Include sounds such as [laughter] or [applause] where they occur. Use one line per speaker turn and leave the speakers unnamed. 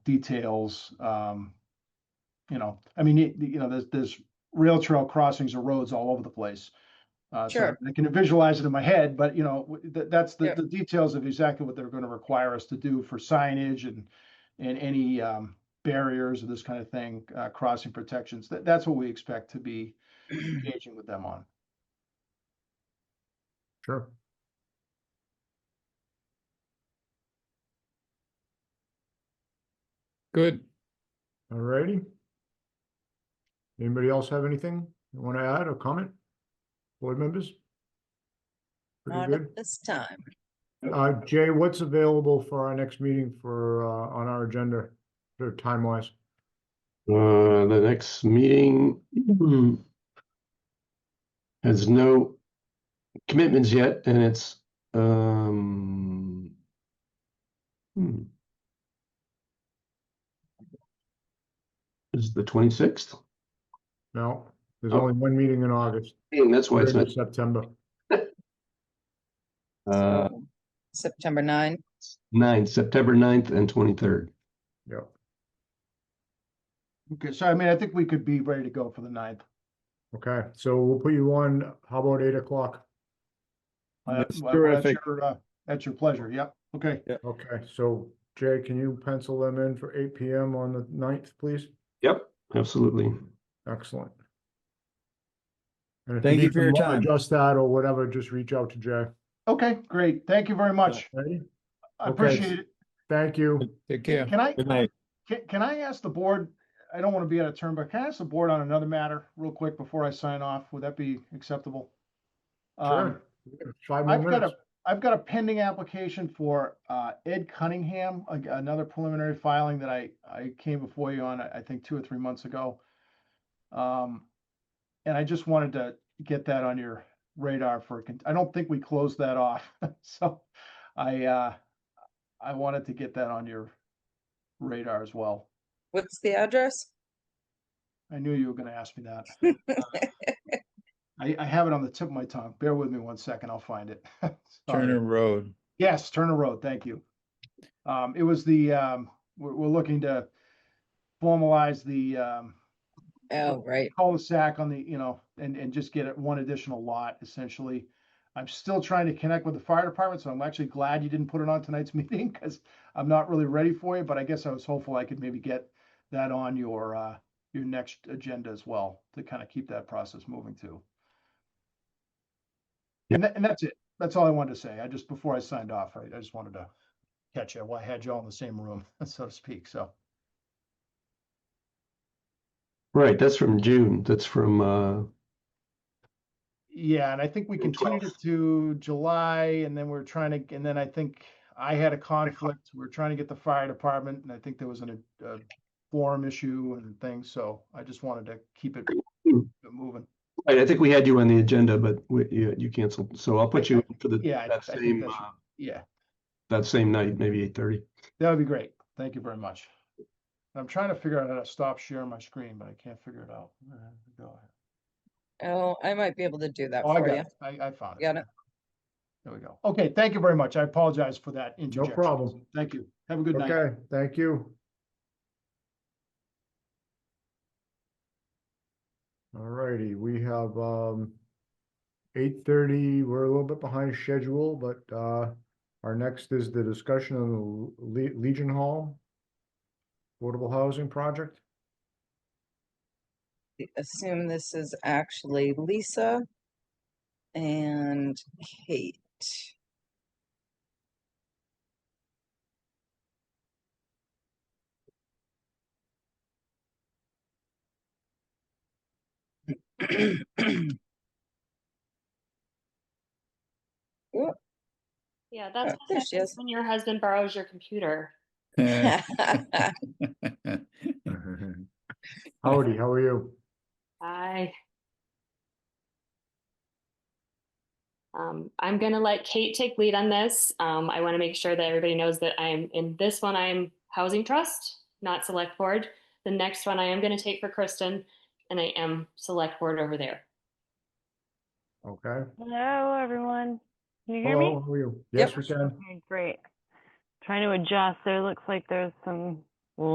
details. Um, you know, I mean, you, you know, there's, there's rail trail crossings or roads all over the place. Uh, so
Sure.
I can visualize it in my head, but you know, w- that, that's the,
Sure.
the details of exactly what they're going to require us to do for signage and, and any, um, barriers or this kind of thing, uh, crossing protections. That, that's what we expect to be engaging with them on.
Sure. Good. Alrighty. Anybody else have anything you want to add or comment? Board members? Pretty
Not
good.
at this time.
Uh, Jay, what's available for our next meeting for, uh, on our agenda, sort of time wise?
Uh, the next meeting hmm, has no commitments yet, and it's, um, hmm. Is the twenty-sixth?
No, there's
Oh.
only one meeting in August,
And that's why it's
third
not,
of September.
uh,
So, September nine,
nine, September 9th and twenty-third.
Yep.
Okay. So, I mean, I think we could be ready to go for the ninth.
Okay, so we'll put you on, how about eight o'clock?
Uh,
That's
well, that's
terrific.
your, uh, That's your pleasure. Yep. Okay.
Okay, so Jay, can you pencil them in for eight PM on the ninth, please?
Yep. Absolutely.
Excellent. And if
Thank you
need
for
to
your
mo-
time.
Adjust that or whatever, just reach out to Jay.
Okay, great. Thank you very much.
Ready?
I
Okay.
appreciate it.
Thank you.
Take care.
Can I,
Good night.
can, can I ask the board, I don't want to be out of turn, but can I ask the board on another matter real quick before I sign off? Would that be acceptable? Um,
Sure. Five more
I've got
minutes.
a, I've got a pending application for, uh, Ed Cunningham, like another preliminary filing that I, I came before you on, I I think two or three months ago. Um, and I just wanted to get that on your radar for, a con- I don't think we closed that off, [laughs] so I, uh, I wanted to get that on your radar as well.
what's the address?
I knew you were gonna ask me that. I, I have it on the tip of my tongue. Bear with me one second, I'll find it. [laughs] Sorry.
Turner Road.
Yes, Turner Road, thank you. Um, it was the, um, we're, we're looking to formalize the, um,
Oh, right,
cul-de-sac on the, you know, and, and just get it one additional lot essentially. I'm still trying to connect with the fire department, so I'm actually glad you didn't put it on tonight's [laughs] meeting because I'm not really ready for you, but I guess I was hopeful I could maybe get that on your, uh, your next agenda as well to kind of keep that process moving too. And that, and that's it. That's all I wanted to say. I just, before I signed off, I, I just wanted to catch you. Well, I had you all in the same room, [laughs] so to speak, so.
Right, that's from June. That's from, uh,
Yeah, and I think we
June
continued it to July and then we're trying to, and then I think I had a conflict. We're trying to get the fire department and I think there was an, a forum issue and things, so I just wanted to keep it
Mm.
moving.
right, I think we had you on the agenda, but we, you, you canceled. So I'll put you in for the,
Yeah, I-
that
I think
same,
that should-
uh,
Yeah,
that same night, maybe eight-thirty.
that would be great. Thank you very much. I'm trying to figure out how to stop sharing my screen, but I can't figure it out. Uh, Go ahead.
oh, I might be able to do that
Oh, I
for
got
you.
it. I, I found it.
Got it.
There we go. Okay, thank you very much. I apologize for that interjection.
problem.
Thank you. Have a good night.
Okay, thank you. Alrighty, we have, um, eight thirty, we're a little bit behind schedule, but, uh, our next is the discussion on the Le- Legion Hall affordable housing project.
Assume this is actually Lisa and Kate.
Yeah, that's
Uh,
what
there she
happens
is.
when your husband borrows your computer.
Eh.
[laughs]
Howdy, how are you?
I. Um, I'm gonna let Kate take lead on this. Um, I want to make sure that everybody knows that I'm in this one. I'm housing trust, not select board. The next one I am gonna take for Kristen, and I am select board over there.
Okay.
Hello, everyone. Can you hear me?
Hello, how are you?
Yep.
Yes, we can.
Okay, great. Trying to adjust. There looks like there's some